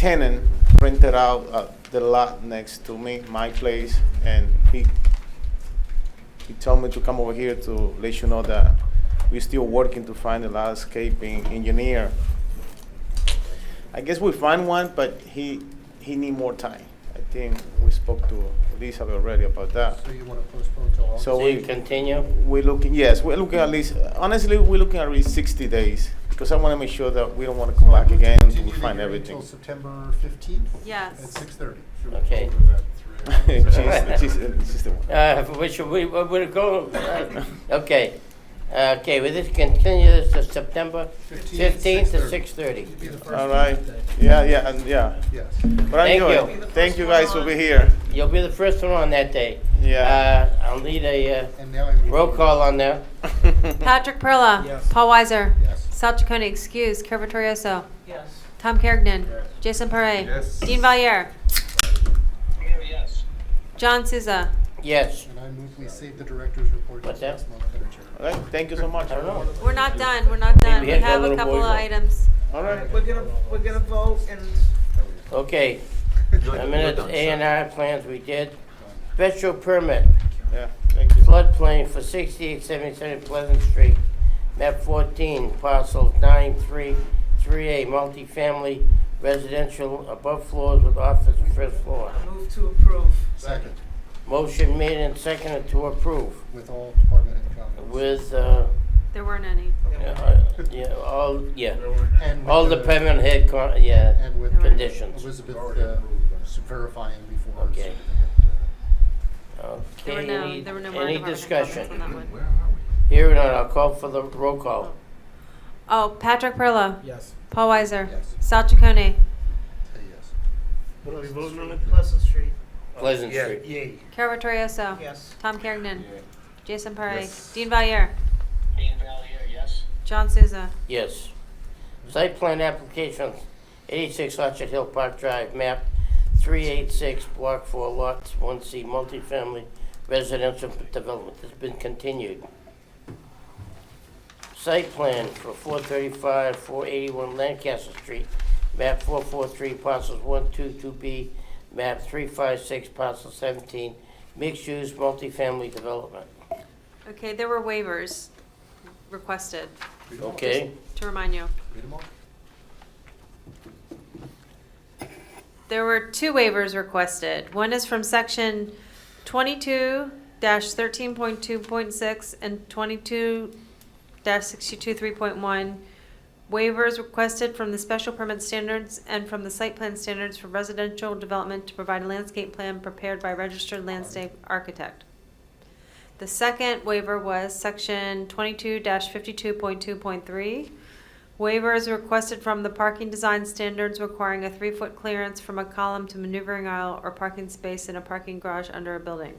tenant rented out uh, the lot next to me, my place, and he he told me to come over here to let you know that we're still working to find a landscaping engineer. I guess we find one, but he he need more time. I think we spoke to Elizabeth already about that. So you want to postpone till August? So So you we- continue? We're looking, yes, we're looking at least, honestly, we're looking at least 60 days because I want to make sure that we don't want to come back again until we find everything. Until September 15th? Yes. At 6:30. Okay. She's- she's- she's the one. Uh, we should, we, we- we'll go, uh, okay. Uh, Okay, we just continue this to September 15th to 6:30. It'd be the first All right. Tuesday. Yeah, yeah, and yeah. Yes. But I'm Thank good. you. Thank you guys for being here. You'll be the first one on that day. Yeah. Uh, I'll need a uh, And now I'm. roll call on that. Patrick Perla. Yes. Paul Weiser. Yes. Sal Chaconi, excuse. Curvatorioso. Yes. Tom Kergnen. Yes. Jason Parre. Yes. Dean Valier. Yes. John Souza. Yes. And I move we save the director's report. What's till that? next month, Madam Chair. All right, thank you so much. I don't know. We're not done. We're not done. we We, had that have a little couple boy of one. items. All right. We're gonna, we're gonna vote and Okay. A minute, A and R plans we did. Special permit, Yeah, thank you. floodplain for 6877 Pleasant Street, map 14, parcel 933A, multifamily residential above floors with office and first floor. move to approve. Second, Motion made and seconded to approve with all department head comments. with, uh, There weren't any. uh, yeah, all, yeah, And with all the permanent head, con- yeah, And with conditions. Elizabeth uh, verifying before. her Okay. certificate, There were Okay, no. any, There were no more any department discussion? comments on that one. Here and now, I'll call for the roll call. Oh, Patrick Perla. Yes. Paul Weiser. uh, Yes. Sal Chaconi. uh, Say yes. What are we voting on? Pleasant Street, Pleasant Street. Yay. Curvatorioso. yes. Tom Kergnen. Jason Parre. Yes. Dean Valier. Dan Valier, yes. John Souza. Yes. Site plan application, eighty-six Orchard Hill Park Drive, map three eight six, block four, lots one C, multifamily residential development has been continued. Site plan for four thirty-five, four eighty-one Lancaster Street, map four four three, parcels one two two B, map three five six, parcel seventeen, mixed-use multifamily development, Okay, there were waivers requested. Read 'em all. okay? To remind you. Read 'em all. There were two waivers requested. One is from section twenty-two thirteen point two point six and twenty-two sixty-two three point one. Waivers requested from the special permit standards and from the site plan standards for residential development to provide a landscape plan prepared by registered landscape architect. The second waiver was section twenty-two fifty-two point two point three. Waiver is requested from the parking design standards requiring a three-foot clearance from a column to maneuvering aisle or parking space in a parking garage under a building.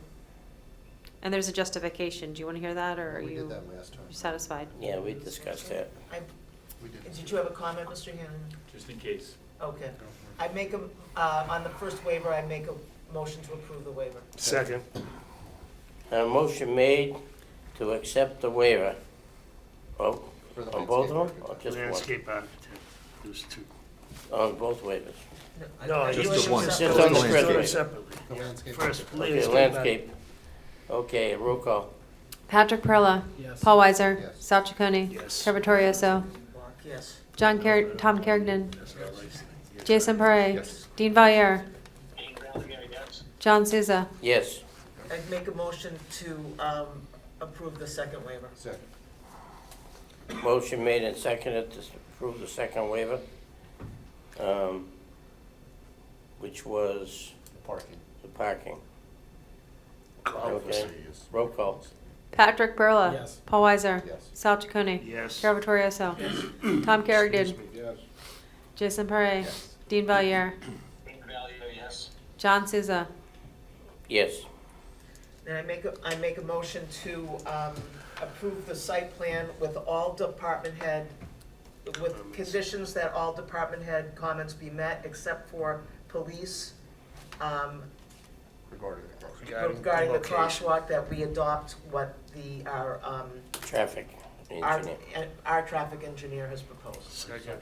And there's a justification. Do you want to hear that, or are We you did that last time. you satisfied? Yeah, we discussed that. I, We did. did you have a comment, Mr. Hannon? Just in case. Okay. I make a, uh, on the first waiver, I make a motion to approve the waiver. Second. A motion made to accept the waiver. Oh, For the on both landscape of them, or architect. just one? Landscape architect. There's two. On both waivers. I- No, I just do it the one. separate. Just on the Let's first do it waiver. separately. The landscape First, architect. Okay, landscape. landscape. Okay, roll call. Patrick Perla. Paul Weiser. Yes. Sal Chaconi. Yes. Carvatorioso. Yes. John Kerr, Tom Kergnen. Jason Parre. Yes. Dean Valier. John Souza. Yes. I'd make a motion to, um, approve the second waiver. Second. Motion made and seconded to approve the second waiver, um, which was Parking. the parking. Say Okay, yes. roll call. Patrick Perla. Paul Weiser. Yes. Sal Chaconi. Yes. Carvatorioso. Tom Kerrigan. Yes. Jason Parre. Yes. Dean Valier. yes. John Souza. Yes. And I make, a I make a motion to um, approve the site plan with all department head, with conditions that all department head comments be met, except for police, um, Regarding the crosswalk. regarding the crosswalk, that we adopt what the, our, um, Traffic our, engineer. our traffic engineer has proposed. Second.